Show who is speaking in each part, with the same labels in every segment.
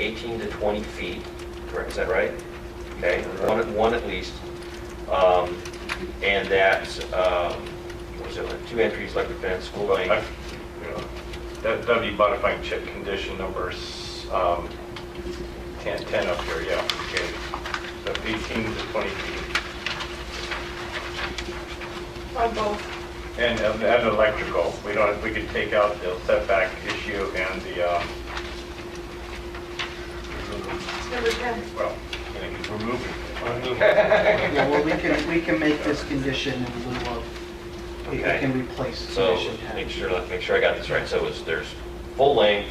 Speaker 1: 18 to 20 feet, correct, is that right? Okay, one, one at least. Um, And that, um, what was it, like two entries, like the fence, full
Speaker 2: I-
Speaker 1: length,
Speaker 2: yeah. That- That'd be modifying chip condition numbers um, 10, 10 up here, yeah. Okay. So 18 to 20 feet.
Speaker 3: On both,
Speaker 2: And, and and electrical, we don't, we could take out the setback issue and the, um,
Speaker 3: number 10.
Speaker 2: well, you know, remove it.
Speaker 4: Yeah, well, we can, we can make this condition in lieu of, we we can replace
Speaker 1: so,
Speaker 4: condition 10.
Speaker 1: make sure, let make sure I got this right, so it's, there's full length,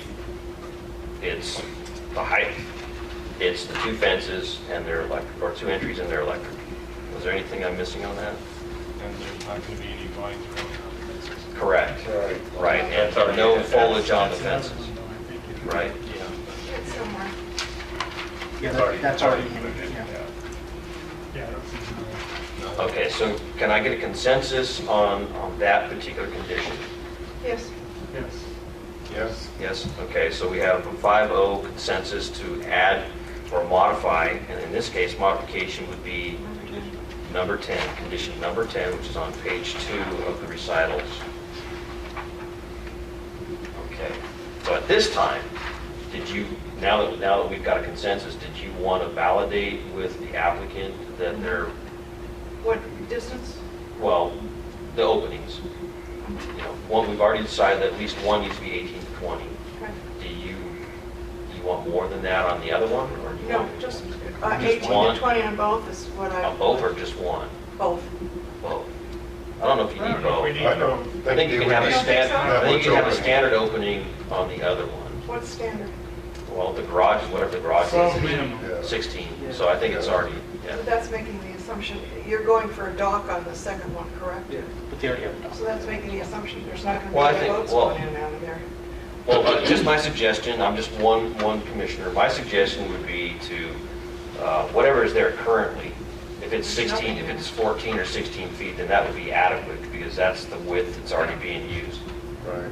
Speaker 1: it's the height, it's the two fences and their electric, or two entries and their electric. Was there anything I'm missing on that?
Speaker 5: And there's not going to be any vines growing on the fences.
Speaker 1: Correct, right, and
Speaker 2: That's already-
Speaker 1: no
Speaker 2: that's-
Speaker 1: foliage on the
Speaker 5: That's
Speaker 1: fences,
Speaker 5: another one, I think, if you-
Speaker 1: right?
Speaker 3: It's somewhere.
Speaker 4: Yeah,
Speaker 2: It's
Speaker 4: that- that's already in,
Speaker 2: included,
Speaker 4: yeah.
Speaker 5: Yeah, I don't see another-
Speaker 1: Okay, so can I get a consensus on, on that particular condition?
Speaker 3: Yes.
Speaker 5: yes.
Speaker 2: Yes.
Speaker 1: Yes, okay, so we have a 5-0 consensus to add or modify, and in this case, modification would be number 10, condition number 10, which is on page 2 of the recitals. Okay, so at this time, did you, now that, now that we've got a consensus, did you want to validate with the applicant that they're
Speaker 3: What distance?
Speaker 1: well, the openings. You know, one, we've already decided that at least one needs to be 18 to 20.
Speaker 3: Okay.
Speaker 1: Do you, do you want more than that on the other one, or do you
Speaker 3: No,
Speaker 1: want?
Speaker 3: just uh,
Speaker 1: Just
Speaker 3: 18
Speaker 1: one.
Speaker 3: to 20 on both is what I.
Speaker 1: On both or just one?
Speaker 3: Both.
Speaker 1: Both. I don't know if you
Speaker 2: I
Speaker 1: need
Speaker 2: don't know if
Speaker 1: both.
Speaker 2: we
Speaker 6: I don't
Speaker 1: I think you can have a
Speaker 3: You don't think
Speaker 1: standard,
Speaker 3: so?
Speaker 1: I think you can have a
Speaker 6: Yeah,
Speaker 1: standard opening on the other one.
Speaker 3: What's standard?
Speaker 1: Well, the garage, is whatever the garage
Speaker 5: Well,
Speaker 1: is,
Speaker 5: minimum.
Speaker 6: Yeah.
Speaker 1: 16, so I think it's already, yeah.
Speaker 3: But that's making the assumption, you're going for a dock on the second one, correct?
Speaker 4: Yeah, but they already have
Speaker 3: So that's making the assumption there's not
Speaker 1: Well, I
Speaker 3: going to be any
Speaker 1: think-
Speaker 3: boats
Speaker 1: well-
Speaker 3: going in and out of there.
Speaker 1: Well, uh, just my suggestion, I'm just one, one commissioner, my suggestion would be to, uh, whatever is there currently, if it's 16, if it's 14 or 16 feet, then that would be adequate, because that's the width that's already being used.
Speaker 6: Right.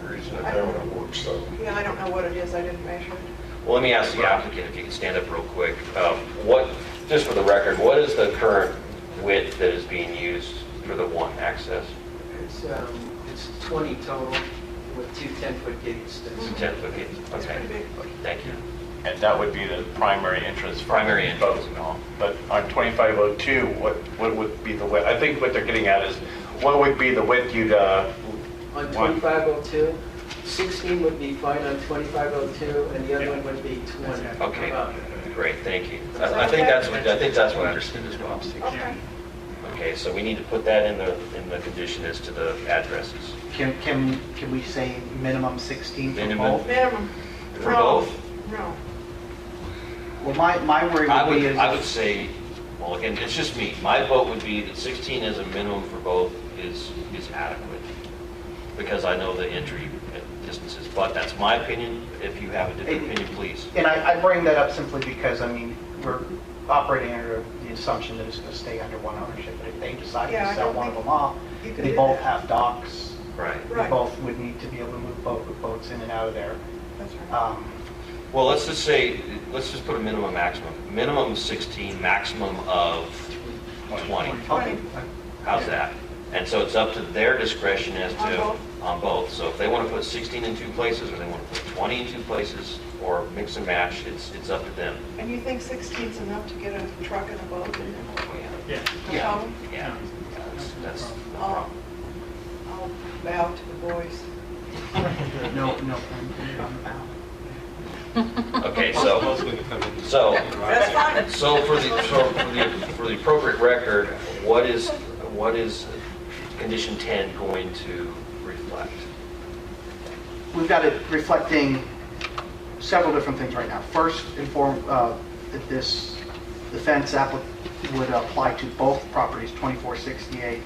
Speaker 6: The reason I haven't it works so.
Speaker 3: Yeah, I don't know what it is, I didn't measure it.
Speaker 1: Well, let me ask the applicant, if you can stand up real quick, Um, what, just for the record, what is the current width that is being used for the one access?
Speaker 7: It's, um, it's 20 total with two 10-foot gates.
Speaker 1: It's a 10-foot gate,
Speaker 3: It's
Speaker 1: okay,
Speaker 3: pretty big.
Speaker 1: thank you.
Speaker 2: And that would be the primary entrance. for
Speaker 1: Primary entrance.
Speaker 2: both. But on 2502, what, what would be the width? I think what they're getting at is, what would be the width you'd, uh,
Speaker 7: On
Speaker 2: want?
Speaker 7: 2502, 16 would be fine on 2502, and the other one would be 20.
Speaker 1: Okay,
Speaker 7: Uh,
Speaker 1: great, thank you. I I think that's what, I think that's what I understood as well.
Speaker 3: Okay.
Speaker 1: Okay, so we need to put that in the, in the condition as to the addresses.
Speaker 4: Can, can, can we say minimum 16 for
Speaker 1: Minimum.
Speaker 4: both?
Speaker 3: Minimum.
Speaker 1: For
Speaker 3: No,
Speaker 1: both?
Speaker 3: No.
Speaker 4: Well, my, my worry
Speaker 1: I
Speaker 4: would be
Speaker 1: would,
Speaker 4: is.
Speaker 1: I would say, well, again, it's just me, my vote would be that 16 as a minimum for both is, is adequate, because I know the entry distances, but that's my opinion, if you have a different opinion, please.
Speaker 4: And I, I bring that up simply because, I mean, we're operating under the assumption that it's going to stay under one ownership, but if they decide
Speaker 3: Yeah, I
Speaker 4: to sell
Speaker 3: don't
Speaker 4: one of
Speaker 3: think
Speaker 4: them off,
Speaker 3: you could
Speaker 4: they
Speaker 3: do
Speaker 4: both
Speaker 3: that.
Speaker 4: have docks,
Speaker 1: Right.
Speaker 4: they
Speaker 3: Right.
Speaker 4: both would need to be able to move boat, boats in and out of there.
Speaker 3: That's right.
Speaker 1: Uh.
Speaker 4: Um,
Speaker 1: Well, let's just say, let's just put a minimum, maximum, minimum 16, maximum of 20.
Speaker 4: Okay,
Speaker 1: How's that? And so it's up to their discretion as
Speaker 3: On
Speaker 1: to,
Speaker 3: both?
Speaker 1: on both. So if they want to put 16 in two places, or they want to put 20 in two places, or mix and match, it's, it's up to them.
Speaker 3: And you think 16's enough to get a truck and a boat in there?
Speaker 5: Oh, Yeah.
Speaker 3: No
Speaker 4: Yeah.
Speaker 3: problem?
Speaker 1: Yeah, that's, that's no
Speaker 3: I'll,
Speaker 1: problem.
Speaker 3: I'll bow to the boys.
Speaker 4: no, no, I'm out.
Speaker 1: Okay,
Speaker 5: So
Speaker 1: so,
Speaker 5: most of them come in.
Speaker 1: so,
Speaker 3: That's fine.
Speaker 1: so for the, so for the, for the appropriate record, what is, what is condition 10 going to reflect?
Speaker 4: we've got it reflecting several different things right now. First, inform uh, that this, the fence applic would apply to both properties, 2468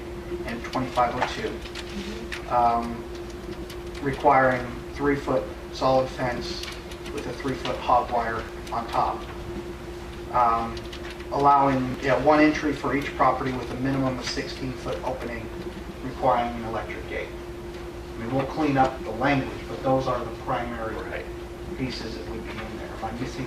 Speaker 4: and 2502, um, requiring three-foot solid fence with a three-foot hog wire on top, Um, allowing, yeah, one entry for each property with a minimum of 16-foot opening, requiring an electric gate. I mean, we'll clean up the language, but those are the primary
Speaker 1: Right.
Speaker 4: pieces that would be in there. Am I I'm missing